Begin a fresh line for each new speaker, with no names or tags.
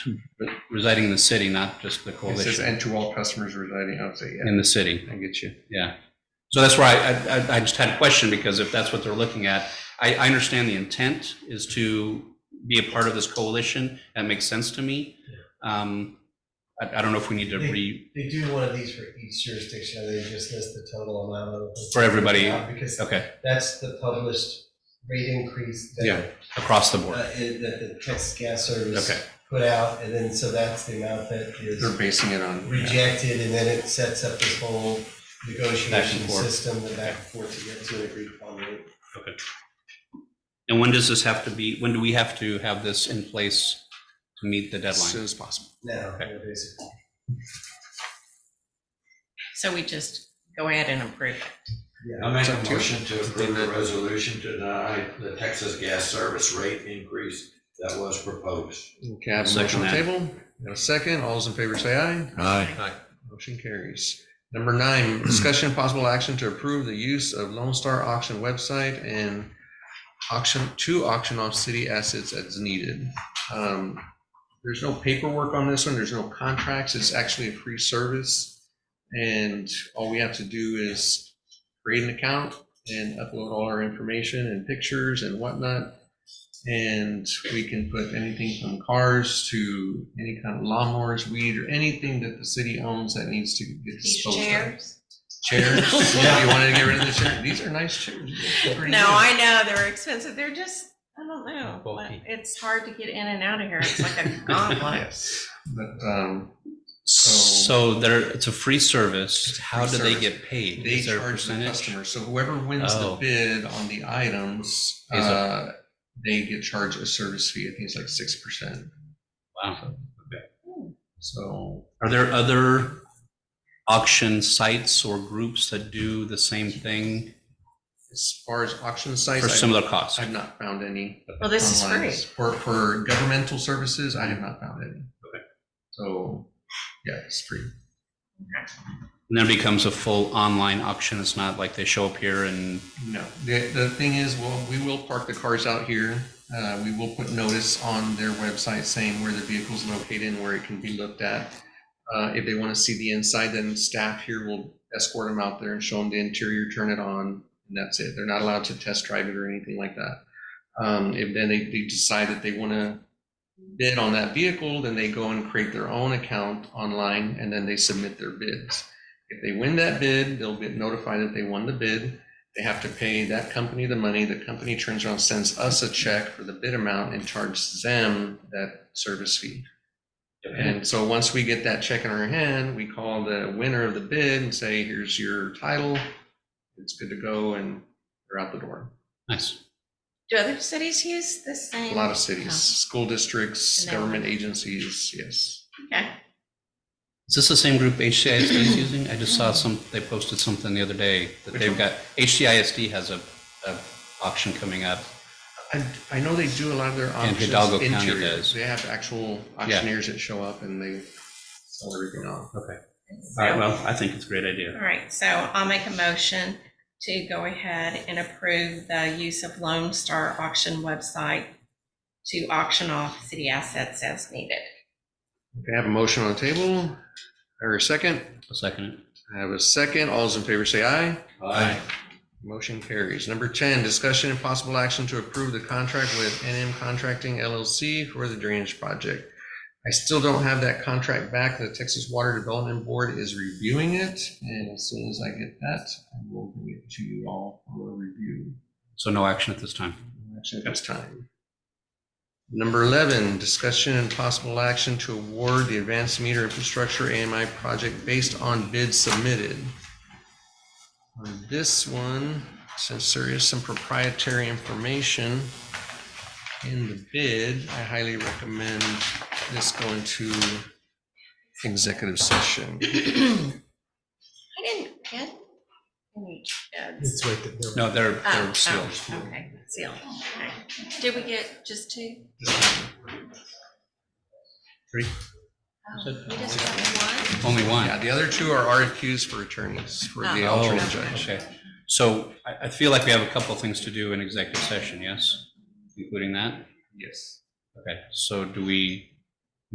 re- residing in the city, not just the
It says,
coalition,
and to all customers residing outside, yeah,
in the city.
I get you.
Yeah. So that's why I, I, I just had a question because if that's what they're looking at, I, I understand the intent is to be a part of this coalition. That makes sense to me. Um, I, I don't know if we need to re,
They do one of these for each jurisdiction, and they just list the total amount of.
For everybody.
Yeah, Because
okay,
that's the published rate increase
Yeah.
that,
across the board.
uh, is- that the Texas Gas
Okay.
Service put out, and then, so that's the amount that
They're
is
basing it on.
rejected, and then it sets up this whole
Back
negotiation
and forth.
system, the back and forth to get to an agreed upon rate.
And when does this have to be, when do we have to have this in place to meet the
As
deadline?
soon as possible.
Now,
Okay.
you know, basically.
So we just go ahead and approve it.
yeah.
I make
It's up to
a
you.
motion to approve the resolution to deny the Texas gas service rate increase that was proposed.
Okay, I have a motion
Second
on the
that.
table. Got a second. All those in favor say aye.
Aye.
Motion carries. Number nine, discussion and possible action to approve the use of Lone Star Auction website and auction, to auction off city assets as needed. Um, There's no paperwork on this one. There's no contracts. It's actually a free service. And all we have to do is create an account and upload all our information and pictures and whatnot. And we can put anything from cars to any kind of lawnmowers, weed, or anything that the city owns that needs to get disposed of. Chairs, yeah, you wanted to get rid of the chair? These are nice chairs. They're pretty
No,
good.
I know, they're expensive, they're just, I don't know,
Bulky.
it's hard to get in and out of here, it's like a gauntlet.
Yes, but, um,
So there, it's a free service. How do they get paid?
they
Is there a
charge the
percentage?
customer, so whoever wins the
Oh.
bid on the items,
Is it-
uh, they get charged a service fee, I think it's like six percent,
Wow.
so.
Are there other auction sites or groups that do the same thing
As far as auction
for
sites, I've,
similar costs?
I've not found any.
Well, this is
online.
free.
For, for governmental services, I have not found any. So, yeah, it's free.
And then it becomes a full online auction. It's not like they show up here and
No, the, the thing is, well, we will park the cars out here. Uh, we will put notice on their website saying where the vehicle's located and where it can be looked at. Uh, if they want to see the inside, then staff here will escort them out there and show them the interior, turn it on, and that's it. They're not allowed to test drive it or anything like that. Um, if then they, they decide that they want to bid on that vehicle, then they go and create their own account online and then they submit their bids. If they win that bid, they'll get notified that they won the bid. They have to pay that company the money. The company turns around, sends us a check for the bid amount and charges them that service fee. And so once we get that check in our hand, we call the winner of the bid and say, here's your title. It's good to go and they're out the door.
nice.
Do other cities use the same?
A lot of cities, school districts,
And they-
government agencies, yes.
Okay.
Is this the same group HCISD is using? I just saw some, they posted something the other day that
Which
they've
one?
got, HCISD has a, a auction coming up.
I, I know they do a lot of their
And
auctions
Hidalgo County
interior.
does.
They have actual auctioneers that show up and they sell everything off.
All right, well, I think it's a great idea.
All right, so I'll make a motion to go ahead and approve the use of Lone Star Auction website to auction off city assets as needed.
Okay, I have a motion on the table, or a second.
I'll second it.
I have a second. All those in favor say aye.
Aye.
Motion carries. Number 10, discussion and possible action to approve the contract with NM Contracting LLC for the drainage project. I still don't have that contract back. The Texas Water Development Board is reviewing it, and as soon as I get that, I will bring it to you all for a review.
So no action at this time.
action at this time. Number 11, discussion and possible action to award the advanced meter infrastructure AMI project based on bids submitted. On this one, since there is some proprietary information in the bid, I highly recommend this going to executive session.
I didn't get any bids.
It's right there.
No, they're,
Oh,
they're
oh,
sealed.
Okay, sealed. Okay. Did we get just two?
Three.
Oh, We just got one?
Only one.
Yeah, the other two are RFQs for attorneys, for the
Oh,
alternate
Oh,
judge.
Okay, so I, I feel like we have a couple things to do in executive session, yes? Including that?
Yes.
Okay, so do we